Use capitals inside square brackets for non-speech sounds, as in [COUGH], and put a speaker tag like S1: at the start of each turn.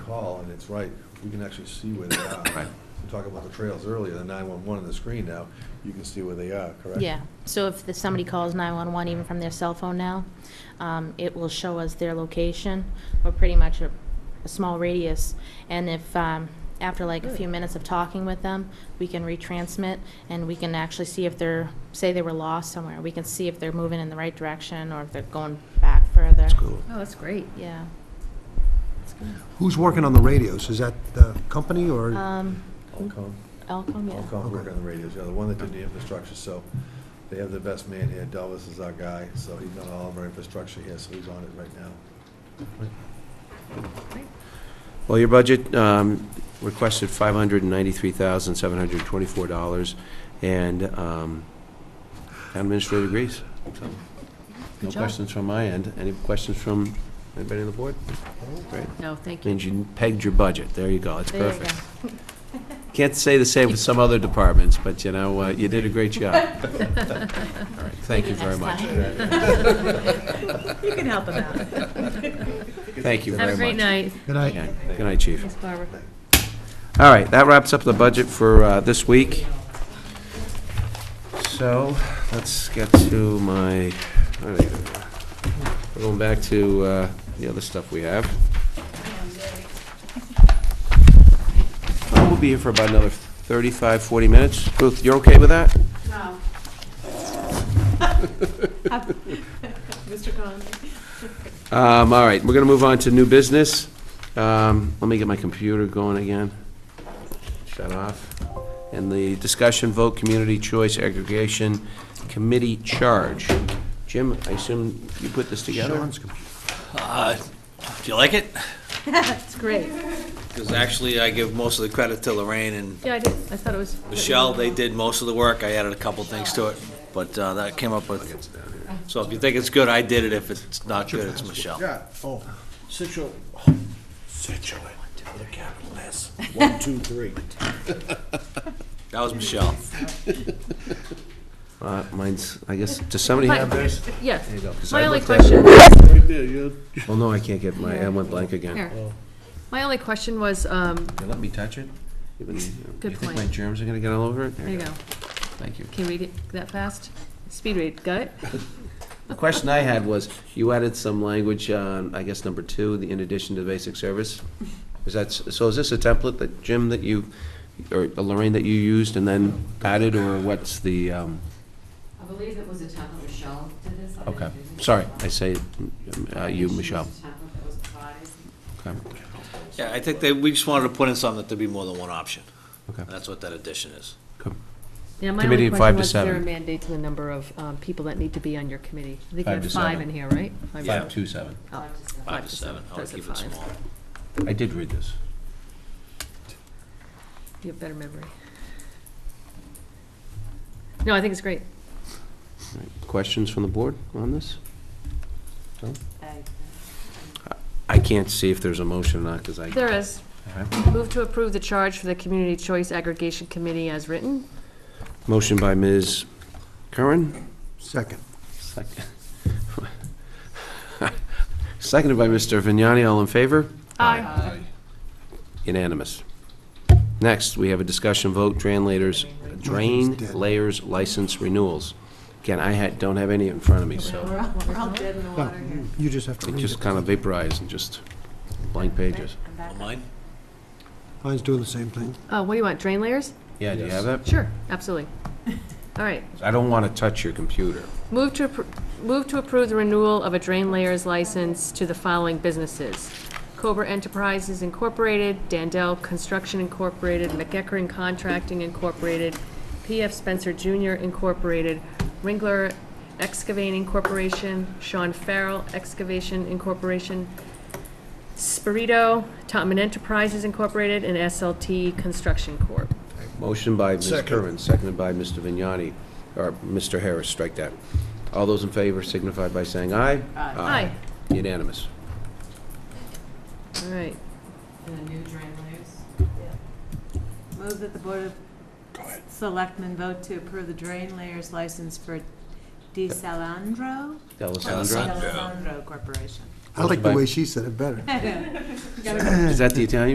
S1: call, and it's right, we can actually see where they are.
S2: Right.
S1: We talked about the trails earlier, the 911 on the screen now, you can see where they are, correct?
S3: Yeah, so if the- somebody calls 911 even from their cell phone now, um, it will show us their location, or pretty much a a small radius. And if, um, after like a few minutes of talking with them, we can retransmit, and we can actually see if they're, say they were lost somewhere, we can see if they're moving in the right direction, or if they're going back further.
S2: That's cool.
S4: Oh, that's great.
S3: Yeah.
S5: Who's working on the radios? Is that the company
S6: Uh,
S5: or?
S3: Um,
S1: Alcom,
S3: Elcom, yeah.
S1: Alcom working on the radios, yeah, the one that did the infrastructure, so they have the best man here, Delvis is our guy, so he's done all of our infrastructure here, so he's on it right now.
S2: Well, your budget um, requested $593,724, and um, town administrator agrees. So, No
S4: job.
S2: questions from my end. Any questions from anybody on the board? Great.
S4: No, thank you.
S2: Means you pegged your budget. There you go. It's
S3: There you
S2: perfect.
S3: go.
S2: Can't say the same with some other departments, but you know, uh, you did a great job. All right, Thank you
S3: Maybe
S2: very
S3: next
S2: much. [LAUGHS]
S3: time. [LAUGHS]
S4: You can help him out.
S2: Thank you
S4: Have
S2: very
S4: a great
S2: much.
S4: night.
S5: Good night.
S2: Yeah. Good night, Chief.
S4: Thanks, Barbara.
S2: All right, that wraps up the budget for uh, this week. So, let's get to my, all right, we're going back to uh, the other stuff we have. Uh, We'll be here for about another 35, 40 minutes. Ruth, you're okay with that?
S6: No. Mr. Conley?
S2: Um, All right, we're going to move on to new business. Um, Let me get my computer going again. Shut off. And the discussion vote, community choice aggregation committee charge. Jim, I assume you put this together?
S5: Sean's computer.
S7: Uh, Do you like it?
S4: It's great.
S7: Because actually, I give most of the credit to Lorraine and
S4: Yeah, I did, I thought it was.
S7: Michelle, they did most of the work, I added a couple things to it, but uh, that came up with, so if you think it's good, I did it, if it's not good, it's Michelle.
S5: Yeah, oh,
S8: Situate. Situate, with a capital S. One, two, three.
S7: That was Michelle.
S2: Uh, Mine's, I guess, does somebody have theirs?
S4: Yes.
S2: There you go, 'cause I
S4: My only
S2: looked at it.
S4: question,
S8: Right there, you
S2: Oh, no, I can't get my, I went blank again.
S4: here. My only question was, um,
S2: You let me touch it? Even- You think
S4: point.
S2: my germs are going to get all over it?
S4: there you go.
S2: Thank you.
S4: Can you read it that fast? Speed read, got it?
S2: The question I had was, you added some language on, I guess, number two, the in addition to basic service. Is that, so is this a template that, Jim, that you, or Lorraine, that you used and then added, or what's the, um,
S9: I believe it was a template Michelle did this. I
S2: okay,
S9: didn't do this.
S2: sorry, I say, uh, you,
S9: She used
S2: Michelle.
S9: a template that was provided.
S2: Okay.
S7: Yeah, I think they, we just wanted to put in something that there'd be more than one option.
S2: Okay.
S7: And that's what that addition is.
S2: Good.
S4: Yeah, my
S2: Committee
S4: only
S2: in
S4: question
S2: five to
S4: was, is there a
S2: seven.
S4: mandate to the number of um, people that need to be on your committee? I think you
S2: Five to
S4: have five
S2: seven.
S4: in here, right?
S7: Yeah.
S2: Five, two, seven.
S4: Oh,
S9: Five to seven.
S7: Five to seven, I would
S4: Those are
S7: keep it
S4: five.
S7: small.
S2: I did read this.
S4: You have better memory. No, I think it's great.
S2: All right, Questions from the board on this?
S9: Okay.
S2: I can't see if there's a motion or not, because I.
S4: There is.
S2: All right.
S4: Move to approve the charge for the Community Choice Aggregation Committee as written.
S2: Motion by Ms. Curran?
S5: Second.
S2: Second- [LAUGHS] Seconded by Mr. Vignani, all in favor?
S4: Aye.
S2: Unanimous. Next, we have a discussion vote, drain layers, drain layers license renewals. Again, I had, don't have any in front of me,
S6: We're
S2: so
S6: all, we're all dead in the
S5: Well,
S6: water here.
S5: Oh, you just have to
S2: it
S5: read
S2: just
S5: it.
S2: kind of vaporized and just blank pages.
S6: I'm back.
S7: Mine?
S5: Mine's doing the same thing.
S4: Oh, what do you want, drain layers?
S2: Yeah, do you have that?
S4: Sure, absolutely. [LAUGHS] All right.
S2: I don't want to touch your computer.
S4: Move to, appro- move to approve the renewal of a drain layers license to the following businesses. Cobra Enterprises Incorporated, Dandel Construction Incorporated, McEckern Contracting Incorporated, PF Spencer Jr. Incorporated, Ringler Excavating Corporation, Sean Farrell Excavation Incorporation, Spirito, Topman Enterprises Incorporated, and SLT Construction Corp.
S2: Motion by Ms.
S8: Second.
S2: Curran, seconded by Mr. Vignani, or Mr. Harris, strike that. All those in favor signify by saying aye.
S4: Aye.
S2: Unanimous.
S4: All right.
S9: And the new drain layers.
S6: Move that the Board of Selectmen vote to approve the drain layers license for DeSalandro?
S2: Alessandra?
S6: DeSalandro Corporation.
S5: I like the way she said it better.
S2: Is that the Italian